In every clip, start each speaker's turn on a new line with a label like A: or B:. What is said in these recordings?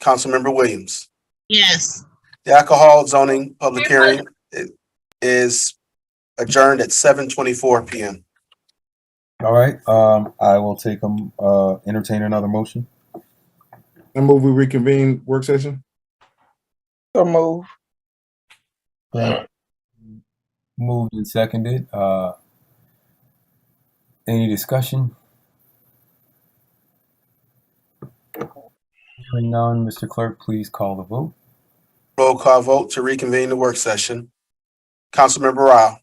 A: Councilmember Williams.
B: Yes.
A: The alcohol zoning public
B: Mayor
A: hearing i- is adjourned at seven twenty-four PM.
C: All right, um, I will take them, uh, entertain another motion.
D: I move we reconvene work session.
E: So move.
C: Moved and seconded, uh, any discussion? Hearing none, Mr. Clerk, please call the vote.
A: Roll call vote to reconvene the work session. Councilmember Rao,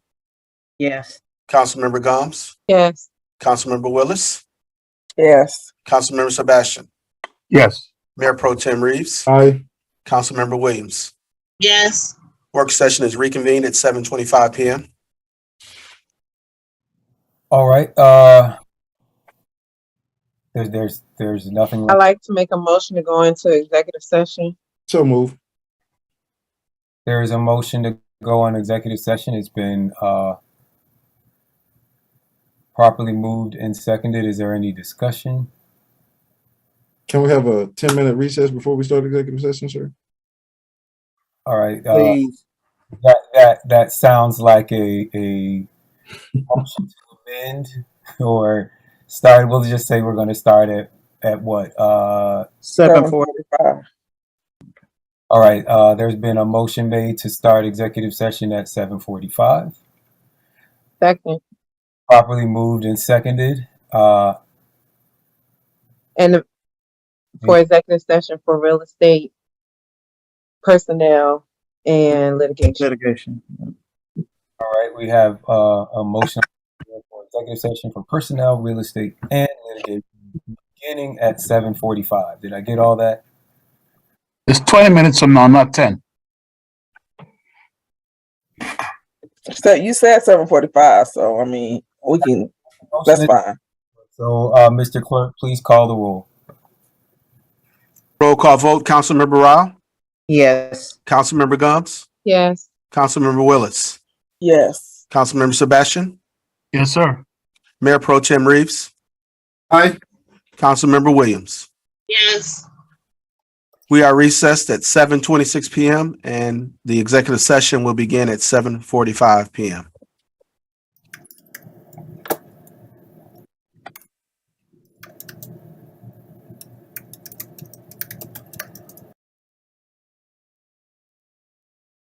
B: Yes.
A: Councilmember Gomes,
B: Yes.
A: Councilmember Willis,
E: Yes.
A: Councilmember Sebastian,
F: yes,
A: Mayor Pro Tim Reeves,
D: Aye.
A: Councilmember Williams.
B: Yes.
A: Work session is reconvened at seven twenty-five PM.
C: All right, uh, there's, there's, there's nothing,
E: I like to make a motion to go into executive session.
D: So move.
C: there is a motion to go on executive session. It's been, uh, properly moved and seconded. Is there any discussion?
D: Can we have a ten minute recess before we start executive session, sir?
C: All right, uh, That that that sounds like a a option to amend or start. We'll just say we're going to start at at what? Uh,
E: Seven forty-five.
C: all right. Uh, there's been a motion made to start executive session at 7:45.
E: Second.
C: Properly moved and seconded. Uh,
E: And the- for executive session for real estate, personnel, and litigation.
G: litigation.
C: all right. We have uh, a motion for executive session for personnel, real estate, and litigation beginning at 7:45. Did I get all that?
F: it's twenty minutes from now, not ten.
H: So you said seven forty-five, so I mean, we can, that's fine.
C: So, uh, Mr. Clerk, please call the roll.
A: Roll call vote, Councilmember Rao,
B: Yes.
A: Councilmember Gomes,
E: Yes.
A: Councilmember Willis,
H: Yes,
A: Councilmember Sebastian,
F: Yes, sir.
A: Mayor Pro Tim Reeves,
D: Aye.
A: Councilmember Williams.
B: Yes.
A: We are recessed at seven twenty-six PM and the executive session will begin at seven forty-five PM.